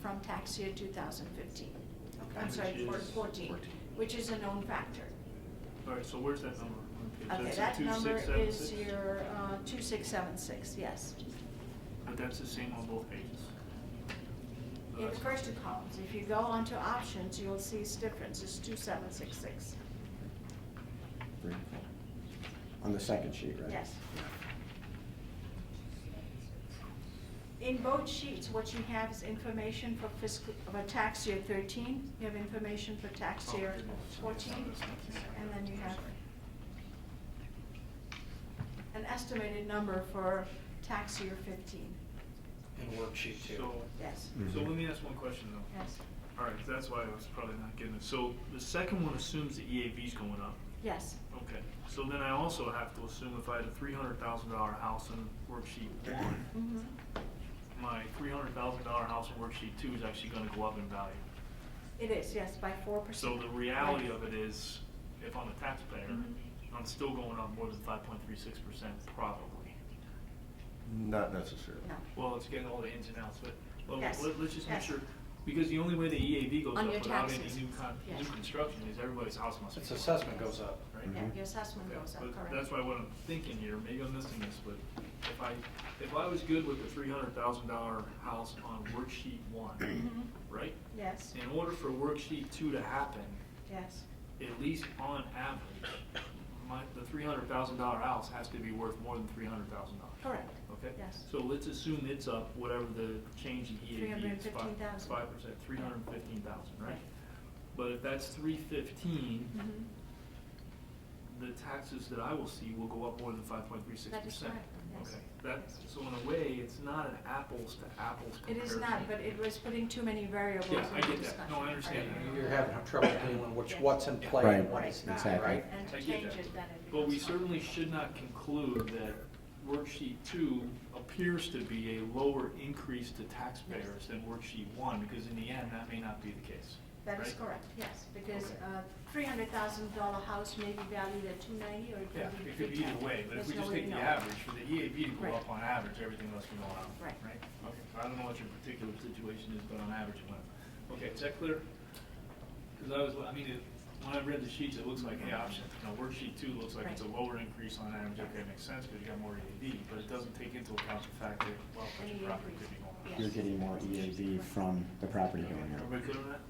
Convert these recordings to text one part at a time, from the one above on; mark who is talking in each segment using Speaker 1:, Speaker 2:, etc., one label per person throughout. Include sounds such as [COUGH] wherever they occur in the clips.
Speaker 1: from tax year two thousand fifteen.
Speaker 2: Okay.
Speaker 1: I'm sorry,
Speaker 2: Which
Speaker 1: four-
Speaker 2: is-
Speaker 1: fourteen, which is a known factor.
Speaker 2: All right, so where's that number? on the page?
Speaker 1: Okay,
Speaker 2: That's a
Speaker 1: that number
Speaker 2: 2676?
Speaker 1: is your, uh, two six seven six, yes.
Speaker 2: Oh, But that's the same on both pages. So
Speaker 1: In the
Speaker 2: that's-
Speaker 1: first two columns, if you go onto options, you'll see it's difference, it's two seven six six,
Speaker 3: Three, four. On the second sheet, right?
Speaker 1: yes. In both sheets, what you have is information for fiscal, for tax year thirteen, you have information for tax
Speaker 2: Oh,
Speaker 1: year
Speaker 2: okay. So
Speaker 1: fourteen,
Speaker 2: that's not the same.
Speaker 1: and then you have
Speaker 2: Sorry.
Speaker 1: an estimated number for tax year fifteen,
Speaker 4: And worksheet two.
Speaker 2: So,
Speaker 1: yes,
Speaker 2: so
Speaker 3: Mhm.
Speaker 2: let me ask one question though.
Speaker 1: yes,
Speaker 2: All right, 'cause that's why I was probably not getting it. So the second one assumes the EAV's going up.
Speaker 1: yes,
Speaker 2: Okay, so then I also have to assume if I had a three hundred thousand dollar house in worksheet one,
Speaker 1: mhm,
Speaker 2: my three hundred thousand dollar house in worksheet two is actually gonna go up in value.
Speaker 1: it is, yes, by four
Speaker 2: So
Speaker 1: percent.
Speaker 2: the reality of it is, if I'm a taxpayer,
Speaker 1: Mhm.
Speaker 2: I'm still going up more than five point three six percent probably.
Speaker 3: Not necessarily.
Speaker 1: No.
Speaker 2: Well, it's getting all the ins and outs, but, well,
Speaker 1: Yes,
Speaker 2: let- let's just make
Speaker 1: yes.
Speaker 2: sure, because the only way the EAV goes
Speaker 1: On
Speaker 2: up
Speaker 1: your
Speaker 2: without any
Speaker 1: taxes,
Speaker 2: new con, new
Speaker 1: yes.
Speaker 2: construction is everybody's house must be.
Speaker 4: Its
Speaker 2: going up,
Speaker 4: assessment Mm-hmm. goes up.
Speaker 2: Right?
Speaker 1: Yeah,
Speaker 3: Mhm.
Speaker 1: your assessment
Speaker 2: Okay,
Speaker 1: goes up,
Speaker 2: but
Speaker 1: correct.
Speaker 2: That's why what I'm thinking here, maybe I'm missing this, but if I, if I was good with the three hundred thousand dollar house on worksheet
Speaker 4: [CLEARS THROAT]
Speaker 2: one,
Speaker 1: Mhm.
Speaker 2: right?
Speaker 1: Yes,
Speaker 2: In order for worksheet two to happen,
Speaker 1: yes,
Speaker 2: at least on average, my, the three hundred thousand dollar house has to be worth more than three hundred thousand dollars.
Speaker 1: correct,
Speaker 2: Okay?
Speaker 1: yes.
Speaker 2: So let's assume it's up, whatever the change in EAV is, five,
Speaker 1: 315,000.
Speaker 2: five percent, three hundred and fifteen thousand, right?
Speaker 1: Right.
Speaker 2: But if that's three fifteen,
Speaker 1: Mhm.
Speaker 2: the taxes that I will see will go up more than five point three
Speaker 1: Mm-hmm.
Speaker 2: six
Speaker 1: That is
Speaker 2: percent.
Speaker 1: correct, yes.
Speaker 2: Okay, that, so in a way, it's not an apples to apples
Speaker 1: It
Speaker 2: comparison.
Speaker 1: is not, but it was putting too many variables
Speaker 2: Yeah, I
Speaker 1: into
Speaker 2: get that.
Speaker 1: discussion.
Speaker 2: No, I understand
Speaker 1: Right.
Speaker 2: that.
Speaker 4: You're having trouble dealing with what's in play
Speaker 3: Right.
Speaker 4: and what is not,
Speaker 3: Exactly.
Speaker 4: right?
Speaker 1: And
Speaker 2: I
Speaker 1: to
Speaker 2: get
Speaker 1: change
Speaker 2: that.
Speaker 1: it, then it becomes.
Speaker 2: But we
Speaker 1: fine.
Speaker 2: certainly should not conclude that worksheet two appears to be a lower increase to taxpayers than worksheet one, because in the end, that may not be the case.
Speaker 1: That is
Speaker 2: right?
Speaker 1: correct, yes, because uh,
Speaker 2: Okay.
Speaker 1: three hundred thousand dollar house may be valued at two ninety or it
Speaker 2: Yeah,
Speaker 1: could be
Speaker 2: it could be either
Speaker 1: 310.
Speaker 2: way, but if
Speaker 1: There's
Speaker 2: we
Speaker 1: no
Speaker 2: just
Speaker 1: way
Speaker 2: take
Speaker 1: to
Speaker 2: the
Speaker 1: know.
Speaker 2: average, for the EAV to go
Speaker 1: Right.
Speaker 2: up on average, everything else can go up, right?
Speaker 1: Right.
Speaker 2: Okay, I don't know what your particular situation is, but on average it went up. Okay, is that clear? Because I was, I mean, it- when I read the sheets, it looks like the option, now worksheet two looks like it's a
Speaker 1: Right.
Speaker 2: lower increase on average, okay, makes sense, because you got more EAV, but it doesn't take into account the fact that, well,
Speaker 1: Any
Speaker 2: your property could be
Speaker 1: increase,
Speaker 2: going up.
Speaker 1: yes.
Speaker 3: You're getting more EAV from the property going up.
Speaker 2: Everybody good on that?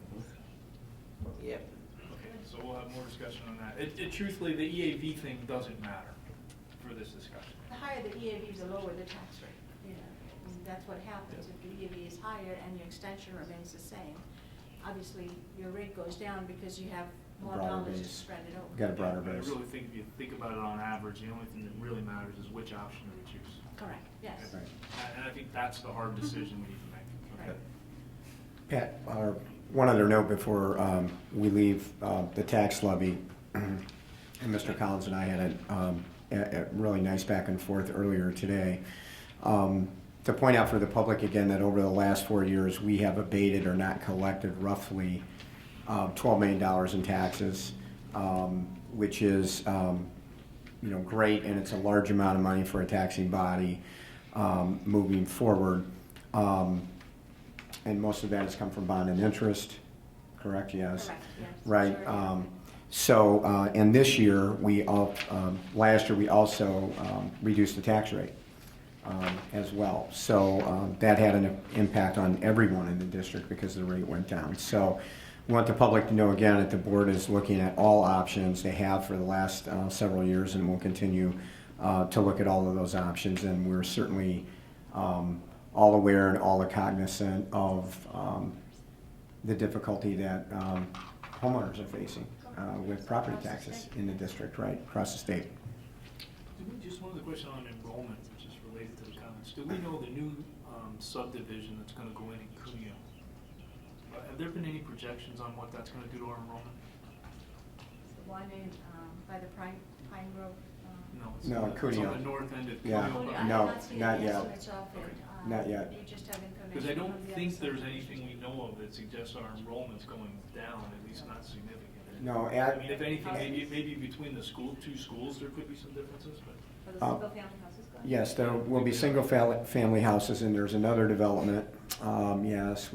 Speaker 4: Yep.
Speaker 2: Okay, so we'll have more discussion on that. It, it truthfully, the EAV thing doesn't matter for this discussion.
Speaker 1: The higher the EAV, the lower the tax rate, you know, and that's what happens. If the EAV is higher and your extension remains the same, obviously your rate goes down because you have more
Speaker 3: Broader
Speaker 1: dollars to
Speaker 3: base.
Speaker 1: spread it over.
Speaker 3: Got a broader
Speaker 2: But I
Speaker 3: base.
Speaker 2: really think if you think about it on average, the only thing that really matters is which option do we choose.
Speaker 1: Correct, yes.
Speaker 3: Right.
Speaker 2: And- And I think that's the hard decision we need to make.
Speaker 1: Right.
Speaker 3: Pat, uh, one other note before um, we leave uh, the tax levy. [CLEARS THROAT] And Mr. Collins and I had a, um, a a really nice back and forth earlier today. Um, To point out for the public again that over the last four years, we have abated or not collected roughly uh, $12 million in taxes, um, which is um, you know, great, and it's a large amount of money for a taxing body um, moving forward. Um, And most of that has come from bond and interest, correct? Yes.
Speaker 1: Correct, yes.
Speaker 3: Right.
Speaker 1: Sure.
Speaker 3: um, So, uh, and this year, we, al- um, last year, we also um, reduced the tax rate um, as well. So um, that had an impact on everyone in the district because the rate went down. So we want the public to know again that the board is looking at all options they have for the last uh, several years and will continue uh, to look at all of those options. And we're certainly um, all aware and all cognizant of um, the difficulty that um, homeowners are facing uh, with property taxes in the district, right, across the state.
Speaker 2: Do we, just one other question on enrollment, which is related to the comments. Do we know the new um, subdivision that's gonna go in in Cuneo? Uh, Have there been any projections on what that's gonna do to our enrollment?
Speaker 1: The one in, um, by the Pine, Pine Grove. um,
Speaker 2: No. it's
Speaker 3: No,
Speaker 2: on the- it's
Speaker 3: Cuneo.
Speaker 2: on the north end of
Speaker 3: Yeah.
Speaker 2: Cuneo.
Speaker 1: Oh, I
Speaker 2: but-
Speaker 1: have
Speaker 3: No,
Speaker 1: seen
Speaker 3: not
Speaker 1: the
Speaker 3: yet.
Speaker 1: estimates of it, uh,
Speaker 3: Not yet.
Speaker 1: You just have information.
Speaker 2: Because I don't
Speaker 1: from the other
Speaker 2: think
Speaker 1: side.
Speaker 2: there's anything we know of that suggests our enrollment's going down, at least not significant.
Speaker 3: No,
Speaker 2: I
Speaker 3: at-
Speaker 2: mean, if anything, maybe, maybe between the school, two schools, there could be some differences, but.
Speaker 5: Are the
Speaker 3: Uh,
Speaker 5: single-family houses going?
Speaker 3: Yes, there will be single-family houses, and there's another development, um, yes,